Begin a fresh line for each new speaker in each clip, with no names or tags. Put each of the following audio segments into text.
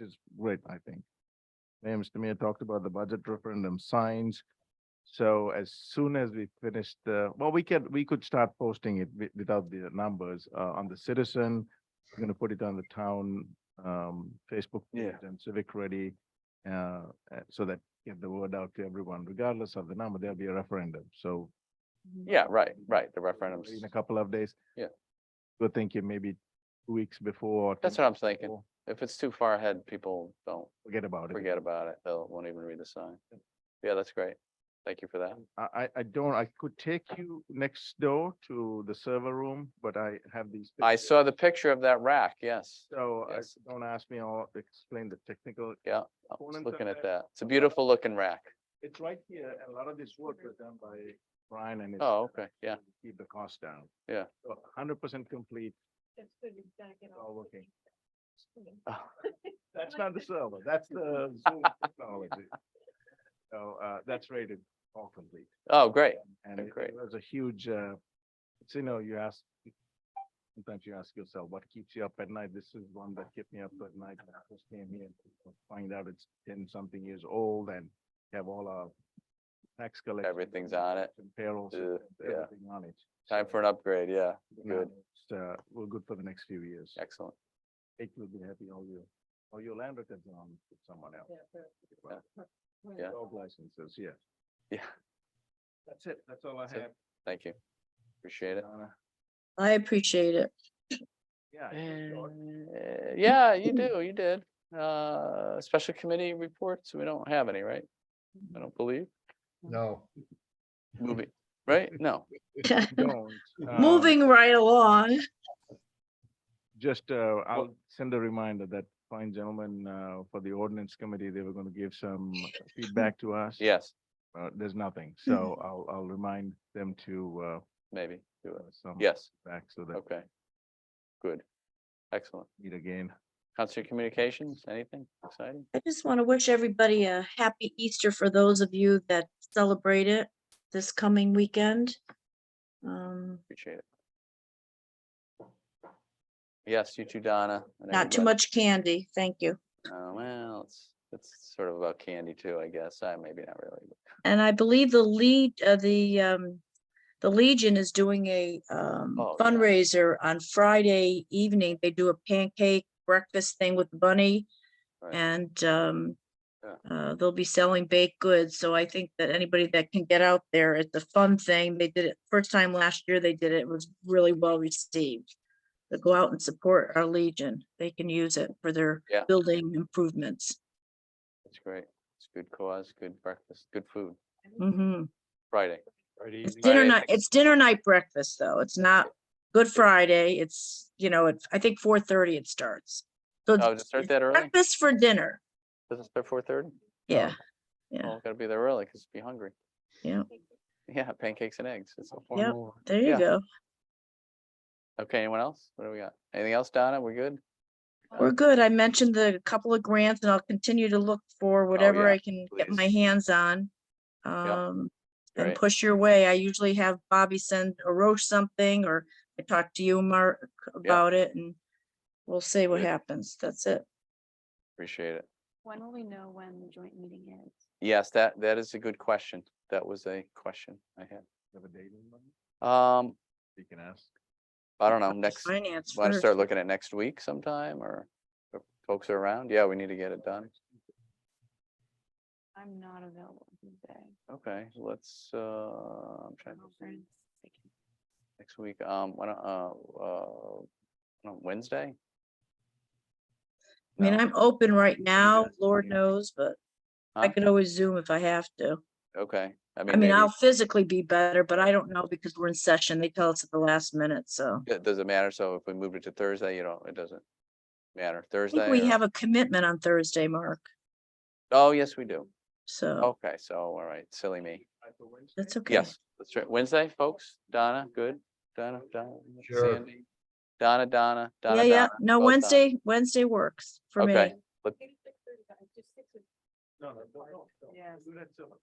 is great, I think. Hey, Mr. Mayor talked about the budget referendum signs. So as soon as we finish the, well, we can, we could start posting it wi- without the numbers uh on the citizen. We're gonna put it on the town um Facebook page
Yeah.
and civic ready. Uh, uh, so that get the word out to everyone, regardless of the number, there'll be a referendum, so
Yeah, right, right, the referendums.
in a couple of days.
Yeah.
We're thinking maybe two weeks before. or
That's
ten
what I'm
days
thinking.
before,
If it's too far ahead, people don't
Forget about it.
forget about it. They'll, won't even read the sign. Yeah, that's great. Thank you for that.
I, I, I don't, I could take you next door to the server room, but I have these.
I
pictures.
saw the picture of that rack, yes.
So I,
yes.
don't ask me, I'll explain the technical,
I was
Components of
looking at
that.
that. It's a beautiful looking rack.
it's right here, and a lot of this work was done by Brian and. his
Oh,
staff
okay, yeah.
to Keep the cost down.
Yeah.
Hundred percent complete,
That's good, it's not gonna
all working.
work.
That's not the server, that's the Zoom technology. So, uh, that's rated all complete.
Oh, great.
And
Oh,
it
great.
it was a huge, uh, it's, you know, you ask, sometimes you ask yourself, what keeps you up at night? This is one that kept me up at night. when I first came here to find out it's ten something years old and have all our tax collection.
Everything's on it.
and Payroll,
Ugh,
systems,
yeah.
everything on it.
Time
So,
for an upgrade, yeah.
for now,
Good,
it's, Uh, we're good for the next few years.
excellent.
It will be happy all year, or your land records are on with someone else. Well,
Yeah.
Dog licenses, yeah.
Yeah.
That's it, that's all I
That's it.
have.
Thank you. Appreciate it.
Donna.
I appreciate it.
Yeah. it was short.
Uh, Yeah, you do, you did. Uh, special committee reports, we don't have any, right? I don't believe.
No.
Movie, right? No.
don't, uh,
Moving right along.
Just, uh, I'll send a reminder that fine gentleman, uh, for the ordinance committee, they were gonna give some feedback to us.
Yes,
Uh, there's nothing, so
Mm-hmm.
I'll, I'll remind them to,
maybe.
uh,
do it.
some.
Yes,
Back so that
okay. Good. Excellent.
we meet again.
Council Communications, anything exciting?
I just want to wish everybody a happy Easter for those of you that celebrate it this coming weekend. Um,
Appreciate it. Yes, you too, Donna. and
not too
everybody.
much candy, thank you.
Uh, Well, it's, it's sort of about candy too, I guess. I, maybe not really. but-
And I believe the lead, uh, the, um, the Legion is doing a, um,
Oh, yeah.
fundraiser on Friday evening. They do a pancake breakfast thing with the bunny.
Right.
And, um,
Yeah.
uh, they'll be selling baked goods. So I think that anybody that can get out there, it's a fun thing. They did it first time last year. They did it. It was really well received. But go out and support our Legion. They can use it for their
Yeah.
building improvements.
It's great. It's a good cause, good breakfast, good food.
hmm
Friday.
It's
Friday,
dinner
I
night,
think.
it's dinner night breakfast, though. It's not Good Friday. It's, you know, it's, I think four thirty it starts. So
Oh,
it's
just start
it's
that early? Oh.
breakfast for dinner.
Doesn't start four thirty?
Yeah, Yeah.
Well, gotta be there early because be hungry.
Yeah.
Yeah, pancakes and eggs. It's a
Yeah.
formal.
there
Yeah.
you go.
Okay, anyone else? What do we got? Anything else, Donna? We're good?
We're good. I mentioned the couple of grants and I'll continue to look for whatever
Oh, yeah,
I can get my
please.
hands on. Um, and
Great.
push your way. I usually have Bobby send a roach something or I talk to you, Mark, about it and we'll see what
Good.
happens. That's it.
Appreciate it.
When will we know when the joint meeting is?
Yes, that, that is a good question. That was a question I had.
You Have a date in mind?
Um,
You can ask.
I don't know,
Talk to
next,
Finance
want to
first.
start looking at next week sometime or if folks are around? Yeah, we need to get it done.
I'm not available Tuesday.
Okay, let's, uh, I'm trying
My
to,
friend's sick.
next week, um, why don't, uh, uh, on Wednesday?
I mean,
No?
I'm open right now,
guys
Lord
meeting?
knows, but I
Huh?
could always Zoom if I have to.
Okay, I
I
mean,
mean,
maybe,
I'll physically be better, but I don't know because we're in session. They tell us at the last minute, so.
it doesn't matter. So if we moved it to Thursday, you don't, it doesn't matter.
I think
Thursday? uh,
we
or-
have a commitment on Thursday, Mark,
Oh, yes, we do.
so
Okay, so, all right, silly me.
Like for Wednesday?
that's okay.
Yes, let's try Wednesday, folks. Donna, good? Donna, Donna,
Sure.
Sandy? Donna, Donna, Donna,
Yeah,
Donna.
yeah, no,
both Donna.
Wednesday, Wednesday works for me.
Okay,
Maybe 6:30, guys, just 6 would-
No, no, no, no, no.
Yes.
Do that till-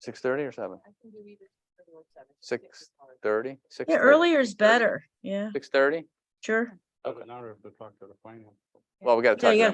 six thirty or seven?
I can do either 6:30 or 7.
Six thirty?
Yeah, earlier is better. Yeah,
Six thirty?
sure.
Okay.
Now we have to talk to the finance.
Well, we gotta talk
Yeah, you
to
gotta
them.